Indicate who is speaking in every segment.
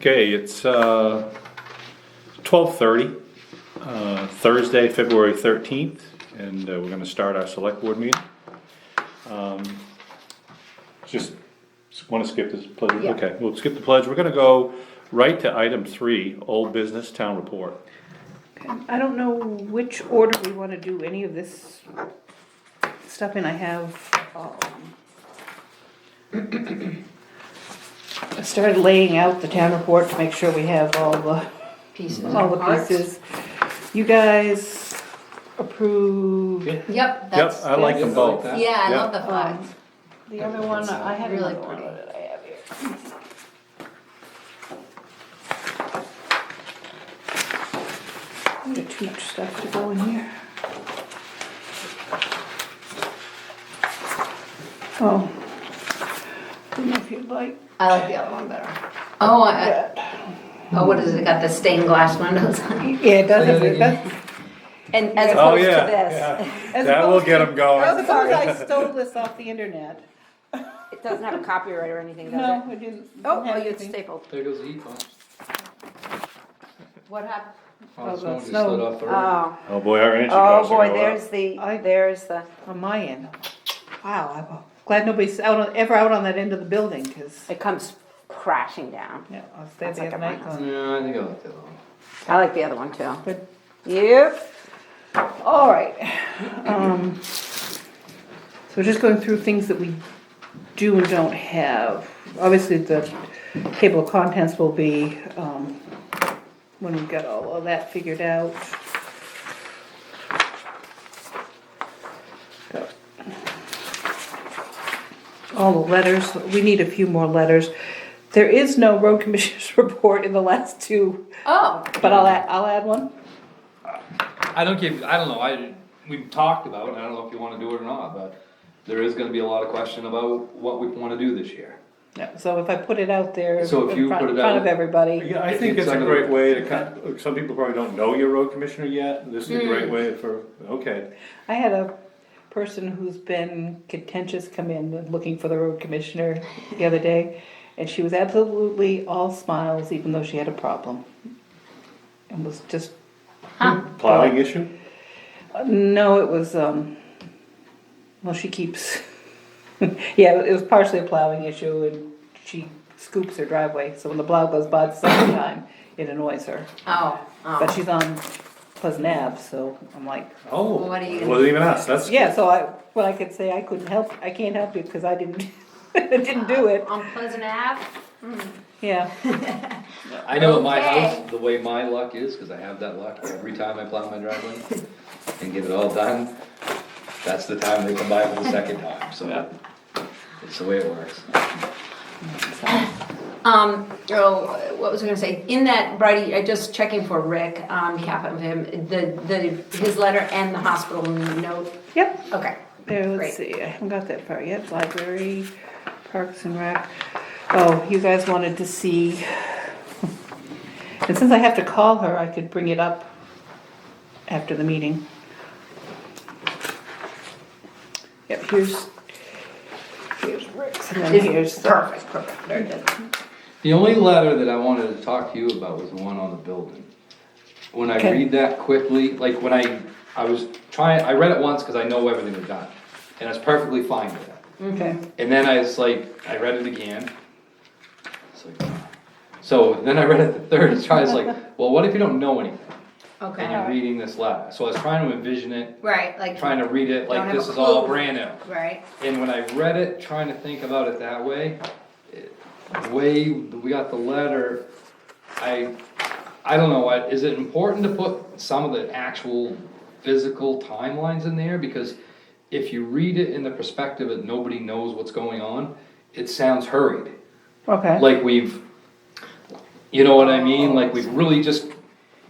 Speaker 1: Okay, it's uh, 12:30, uh, Thursday, February 13th, and uh, we're going to start our select board meeting. Um, Just want to skip this pledge,
Speaker 2: Yeah.
Speaker 1: okay, we'll skip the pledge. We're going to go right to item three, old business town report.
Speaker 3: I don't know which order we wanna do any of this stuff in, I have, um. I started laying out the town report to make sure we have all the,
Speaker 2: Mm-hmm. pieces.
Speaker 3: all the pieces. You guys approved,
Speaker 1: Yep, uh,
Speaker 2: Yep,
Speaker 1: I
Speaker 2: that's.
Speaker 1: like them
Speaker 4: Yeah, I like
Speaker 1: both.
Speaker 4: that.
Speaker 2: Yeah, I
Speaker 1: Yeah.
Speaker 2: love the flags.
Speaker 3: Um, the other one, I have
Speaker 2: Really
Speaker 3: another one
Speaker 2: pretty.
Speaker 3: that I have here. I'm gonna too much stuff to go in here. Oh. I don't know if you'd like
Speaker 2: I like the other one better. Oh, I,
Speaker 3: that.
Speaker 2: oh, what is it? Got the stained glass windows on it.
Speaker 3: Yeah, it does,
Speaker 4: Yeah, they
Speaker 3: it does.
Speaker 2: And as
Speaker 1: Oh,
Speaker 2: opposed to
Speaker 1: yeah,
Speaker 2: this,
Speaker 1: yeah.
Speaker 3: As
Speaker 1: That will
Speaker 3: opposed
Speaker 1: get
Speaker 3: to-
Speaker 1: them
Speaker 3: As
Speaker 1: going.
Speaker 3: opposed I stole this off the internet.
Speaker 2: it doesn't have a copyright or anything,
Speaker 3: No, I didn't.
Speaker 2: Oh,
Speaker 3: have
Speaker 2: well, it's
Speaker 3: anything.
Speaker 2: stapled.
Speaker 4: There goes the heat pump.
Speaker 2: What happened?
Speaker 3: Oh,
Speaker 4: Oh, someone
Speaker 3: the
Speaker 4: just
Speaker 3: snow.
Speaker 4: lit off the
Speaker 2: uh,
Speaker 4: roof.
Speaker 5: Oh,
Speaker 1: Oh, boy, our energy
Speaker 5: oh
Speaker 1: costs are
Speaker 5: boy,
Speaker 1: going up.
Speaker 5: there's the,
Speaker 3: I-
Speaker 5: there's the,
Speaker 3: On my end. Wow, I'm glad nobody's out on, ever out on that end of the building, cause.
Speaker 5: it comes crashing down.
Speaker 3: Yeah, I was there
Speaker 5: That's
Speaker 3: the
Speaker 5: like
Speaker 3: other
Speaker 5: at my
Speaker 3: night.
Speaker 5: house.
Speaker 3: going,
Speaker 4: Yeah, I think I like that one.
Speaker 5: I like the other one too.
Speaker 3: Good.
Speaker 5: Yep,
Speaker 3: All right. Um, So just going through things that we do and don't have. Obviously, the table of contents will be um, when we've got all of that figured out. All the letters, we need a few more letters. There is no road commissioners report in the last two,
Speaker 2: Oh,
Speaker 3: but I'll add, I'll add one.
Speaker 4: I don't give, I don't know, I, we've talked about, and I don't know if you wanna do it or not, but there is gonna be a lot of question about what we wanna do this year.
Speaker 3: Yeah, so if I put it out there in
Speaker 4: So
Speaker 3: front,
Speaker 4: if you
Speaker 3: in front
Speaker 4: put
Speaker 3: of
Speaker 4: it out-
Speaker 3: everybody,
Speaker 1: Yeah, I think
Speaker 4: It's
Speaker 1: it's a
Speaker 4: under-
Speaker 1: great way to kind, look, some people probably don't know your road commissioner yet, this is a
Speaker 2: Mm.
Speaker 1: great way for, okay.
Speaker 3: I had a person who's been contentious come in looking for the road commissioner the other day. And she was absolutely all smiles, even though she had a problem. And was just,
Speaker 1: Plowing issue?
Speaker 3: no, it was, um, well, she keeps, yeah, it was partially a plowing issue and she scoops her driveway. So when the plow goes by the second time, it annoys her.
Speaker 2: oh,
Speaker 3: But
Speaker 2: oh.
Speaker 3: she's on Pleasant Ave, so I'm like,
Speaker 1: Oh,
Speaker 2: What are you
Speaker 1: it
Speaker 2: gonna-
Speaker 1: wasn't even us, that's.
Speaker 3: Yeah, so I, what I could say, I couldn't help, I can't help you because I didn't, didn't do it,
Speaker 2: On Pleasant Ave?
Speaker 3: yeah.
Speaker 4: I know at my
Speaker 2: Okay.
Speaker 4: house, the way my luck is, cause I have that luck every time I plow my driveway and get it all done, that's the time they come by for the second time, so. It's the way it works.
Speaker 2: Um, oh, what was I gonna say? In that, Brady, I just checking for Rick, on behalf of him, the, the, his letter and the hospital note.
Speaker 3: Yep,
Speaker 2: Okay.
Speaker 3: there,
Speaker 2: Great.
Speaker 3: let's see, I haven't got that far yet, library, parks and rec. Oh, you guys wanted to see, and since I have to call her, I could bring it up after the meeting. Yep, here's, here's Rick's, and then here's.
Speaker 2: Perfect, perfect, very good.
Speaker 4: The only letter that I wanted to talk to you about was the one on the building. When I
Speaker 3: Okay.
Speaker 4: read that quickly, like when I, I was trying, I read it once because I know everything was done, and I was perfectly fine with it.
Speaker 3: Okay.
Speaker 4: And then I was like, I read it again. It's like, So then I read it the third time, I was like, well, what if you don't know anything? And
Speaker 2: Okay,
Speaker 4: you're reading this letter, so I was trying to envision it,
Speaker 2: right, like,
Speaker 4: trying to read it
Speaker 2: Don't
Speaker 4: like
Speaker 2: have
Speaker 4: this
Speaker 2: a
Speaker 4: is all
Speaker 2: clue.
Speaker 4: brand new.
Speaker 2: right,
Speaker 4: And when I read it, trying to think about it that way, it- the way we got the letter, I, I don't know, I- is it important to put some of the actual physical timelines in there? Because if you read it in the perspective that nobody knows what's going on, it sounds hurried.
Speaker 3: Okay,
Speaker 4: Like we've, you know what I mean, like we've really just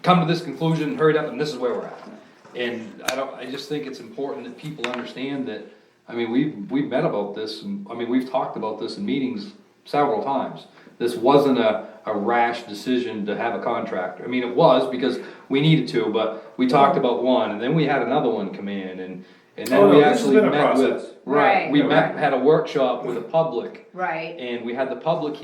Speaker 4: come to this conclusion, hurried up, and this is where we're at. And I don't, I just think it's important that people understand that, I mean, we've, we've met about this, and, I mean, we've talked about this in meetings several times. This wasn't a, a rash decision to have a contractor, I mean, it was, because we needed to, but we talked about one, and then we had another one come in, and,
Speaker 1: Oh,
Speaker 4: and then
Speaker 1: no,
Speaker 4: we
Speaker 1: this has
Speaker 4: actually
Speaker 1: been a
Speaker 4: met with.
Speaker 1: process.
Speaker 4: Right, we
Speaker 1: Right.
Speaker 4: met, had a workshop with the public,
Speaker 2: right.
Speaker 4: and we had the public